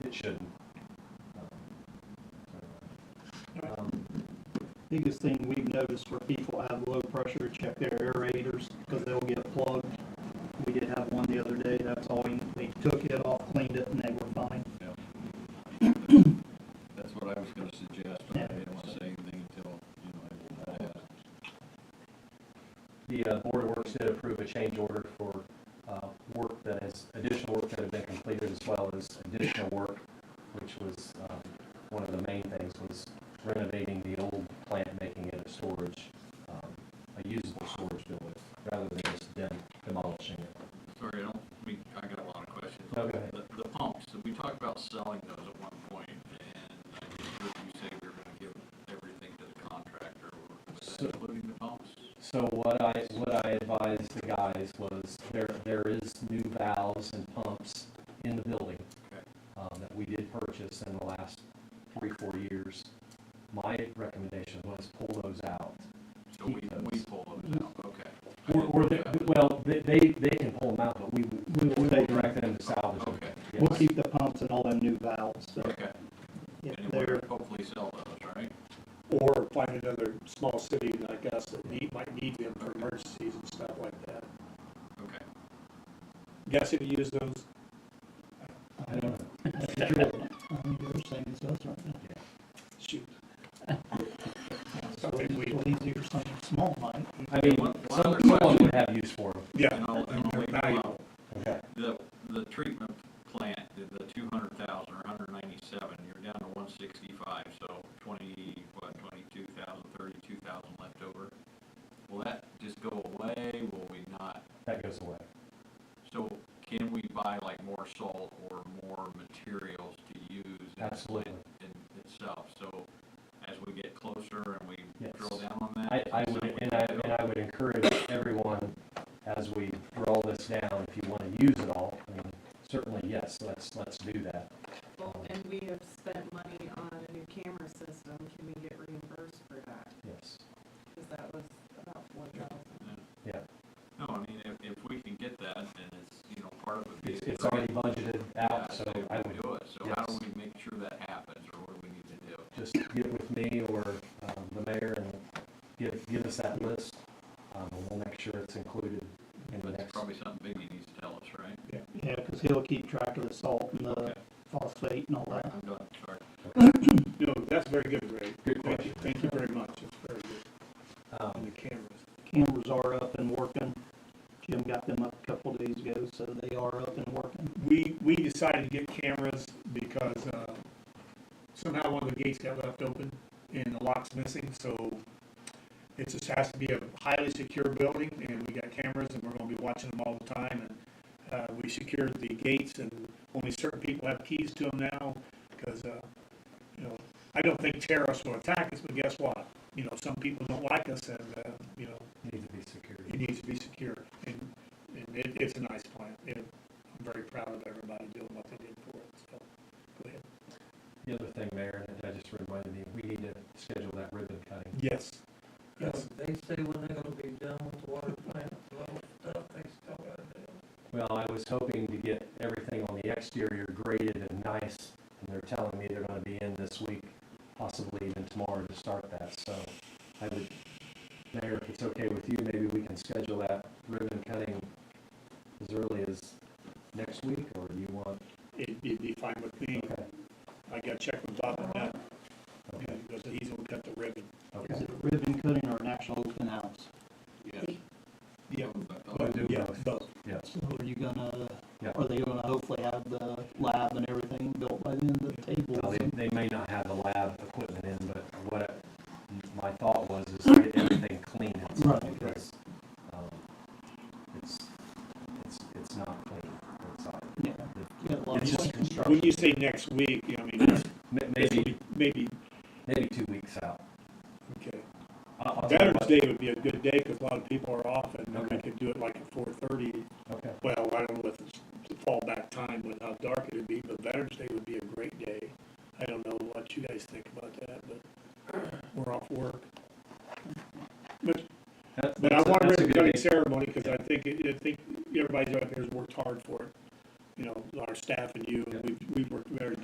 it shouldn't. Um, Biggest thing we've noticed where people have low pressure, check their aerators, because they'll get plugged. We did have one the other day, that's all, you- they took it off, cleaned it, and they were fine. yeah. That's what I was gonna suggest, but I didn't wanna say anything until, you know, I asked. The uh, Board of Works did approve a change order for uh, work that is, additional work that had been completed as well as additional work, which was, um, one of the main things was renovating the old plant, making it a storage, um, a usable storage building, rather than just dem- demolishing it. Sorry, I don't, I mean, I got a lot of questions. No, go ahead. The, the pumps, we talked about selling those at one point, and I just heard you say we were gonna give everything to the contractor, was So- that including the pumps? So what I, what I advised the guys was there, there is new valves and pumps in the building. Okay. um, that we did purchase in the last three, four years, my recommendation was pull those out. So we, Keep we those. pull those out, okay. Or, or, they- well, they, they, they can pull them out, but we, we will direct them to salvage them. Okay, We'll Yes. keep the pumps and all them new valves, so okay, if and they're, we're hopefully sell those, right? or find another small city like us that need, might need them for emergencies and stuff like that. Okay. Guess if you use those, I don't know. I mean, they're saying it's us right now. shoot, So it's we- easier for something small, Mike. I mean, One- one some- other someone question. would have use for them. yeah. And I'll- and I'll They're leave it valuable. alone. Okay. The, the treatment plant, the- the two hundred thousand or hundred ninety-seven, you're down to one sixty-five, so twenty, what, twenty-two thousand, thirty-two thousand left over. Will that just go away? Will we not? That goes away. So can we buy like more salt or more materials to use? in the Absolutely. plant In itself, so as we get closer and we Yes. drill down on that? I, I is would, something and I, we and I would encourage everyone, as we draw this down, if you wanna use it all, I mean, certainly, yes, let's, let's do that. Um, Well, and we have spent money on a new camera system, can we get reimbursed for that? Yes, Because that was about four thousand. yeah. No, I mean, if, if we can get that, and it's, you know, part of it. It's, it's already budgeted out, so I would do it, so how do yes. we make sure that happens, or what do we need to do? just get with me or um, the mayor and give, give us that list. Um, and we'll make sure it's included in the But it's next. probably something Biggie needs to tell us, right? Yeah, because he'll keep track of the salt and the phosphate and all that. I'm done, sorry. No, that's very good, Ray. Good Thank you, thank you very much, it's very good, and Um, the cameras. Cameras are up and working. Jim got them up a couple days ago, so they are up and working. We, we decided to get cameras because, uh, somehow one of the gates got left open and the lock's missing, so it just has to be a highly secure building, and we got cameras, and we're gonna be watching them all the time, and, uh, we secured the gates, and only certain people have keys to them now, because, uh, you know, I don't think terrorists will attack us, but guess what? You know, some people don't like us, and, uh, you know, Need to be secured. it needs to be secure, and, and it, it's a nice plant, and I'm very proud of everybody doing what they did for it, so, go ahead. The other thing, Mayor, and that just reminded me, we need to schedule that ribbon cutting. Yes. Yes, They say when they're gonna be done with the water plant, well, stuff, they still gotta do. it. Well, I was hoping to get everything on the exterior graded and nice, and they're telling me they're gonna be in this week, possibly even tomorrow to start that, so I would, Mayor, if it's okay with you, maybe we can schedule that ribbon cutting as early as next week, or do you want? it'd, it'd be fine with me, Okay, I gotta check with Bob on that, okay, and because he's gonna cut the ribbon. okay. Is it a ribbon cutting or an actual open house? Yeah. Yeah. We'll do Yeah, both. both, Yes, So are you gonna, Yeah. are they gonna hopefully have the lab and everything built by then, the Well, tables? they, and- they may not have the lab equipment in, but what I- my thought was is to get everything clean inside Right. because, um, it's, it's, it's not clean inside. Yeah. You got a lot of It's just questions. construction. when you say next week, I mean, it's- May- it's Maybe, maybe, maybe two weeks out. okay. I'll- I'll tell you Veterans what- Day would be a good day, cause a lot of people are off, and we Okay. could do it like at four thirty, Okay, well, I don't know if it's the fallback time with how dark it'd be, but Veterans Day would be a great day. I don't know what you guys think about that, but we're off work. But, That- but I that's a- want that's a to good cutting idea. ceremony, because I think, it- I think everybody's out there has worked hard for it. You know, our staff and you